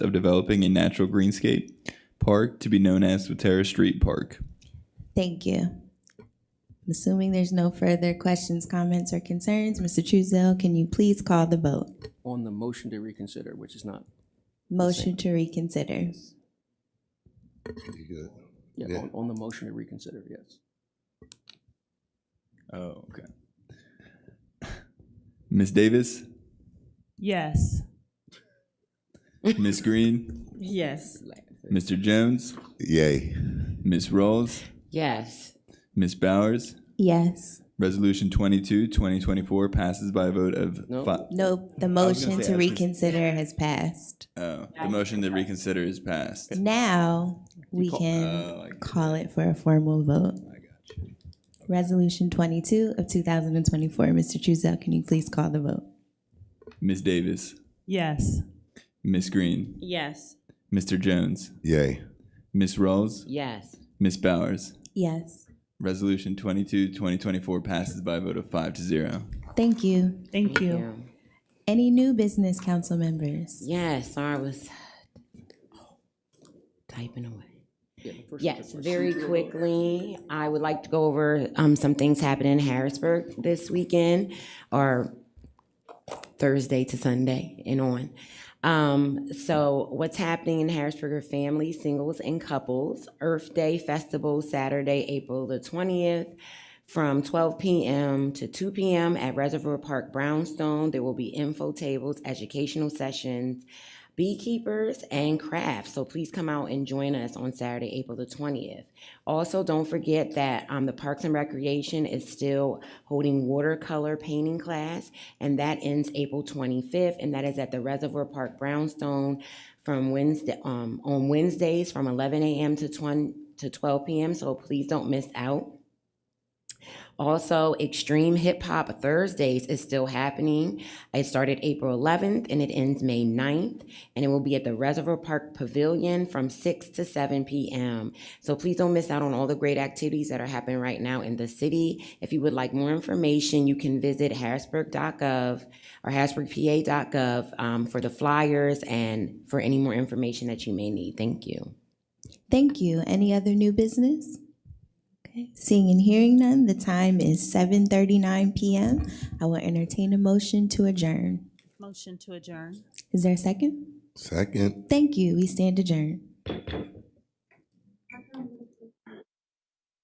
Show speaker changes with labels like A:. A: of developing a natural greenscape park to be known as Waterra Street Park.
B: Thank you. I'm assuming there's no further questions, comments, or concerns, Mr. Truesdale, can you please call the vote?
C: on the motion to reconsider, which is not,
B: Motion to reconsider.
D: You good?
C: yeah, on, on the motion to reconsider, yes.
A: Oh, okay. Ms. Davis,
E: Yes.
A: Ms. Green,
E: Yes.
A: Mr. Jones,
D: Yay.
A: Ms. Rawls,
F: Yes.
A: Ms. Bowers.
B: Yes.
A: Resolution 22, 2024 passes by a vote of
C: No.
A: five.
B: Nope, the
A: was gonna
B: motion
A: say,
B: to
A: I was gonna say-
B: reconsider has passed.
A: Oh, the motion to reconsider is passed.
B: Now, we
A: Oh, I
B: can
A: get
B: call it for a formal vote. Resolution twenty-two of two thousand and twenty-four, Mr. Truesdale, can you please call the vote?
A: Ms. Davis,
E: Yes.
A: Ms. Green,
E: Yes.
A: Mr. Jones,
D: Yay.
A: Ms. Rawls,
F: Yes.
A: Ms. Bowers.
B: Yes.
A: Resolution 22, 2024 passes by a vote of five to zero.
B: Thank you.
E: Thank you.
F: Yeah.
B: Any new business, council members?
F: Yes, I was typing away.
C: Yeah, the first-
F: Yes, very quickly, I would like to go over um, some things happening in Harrisburg this weekend or Thursday to Sunday and on. Um, so what's happening in Harrisburg are families, singles, and couples. Earth Day Festival, Saturday, April the twentieth, from twelve PM to two PM at Reservoir Park Brownstone. There will be info tables, educational sessions, beekeepers, and crafts. So please come out and join us on Saturday, April the 20th. Also, don't forget that um, the Parks and Recreation is still holding watercolor painting class, and that ends April 25th, and that is at the Reservoir Park Brownstone from Wednesday um, on Wednesdays from 11 a.m. to 20 to 12 p.m. So please don't miss out. Also, Extreme Hip Hop Thursdays is still happening. It started April 11th and it ends May 9th, and it will be at the Reservoir Park Pavilion from 6 to 7 p.m. So please don't miss out on all the great activities that are happening right now in the city. If you would like more information, you can visit harrisburg.gov or harrisburgpa.gov um, for the flyers and for any more information that you may need. Thank you.
B: Thank you. Any other new business? Okay, seeing and hearing none, the time is seven thirty-nine PM. I will entertain a motion to adjourn.
E: Motion to adjourn.
B: Is there a second?
D: Second.
B: Thank you. We stand adjourned.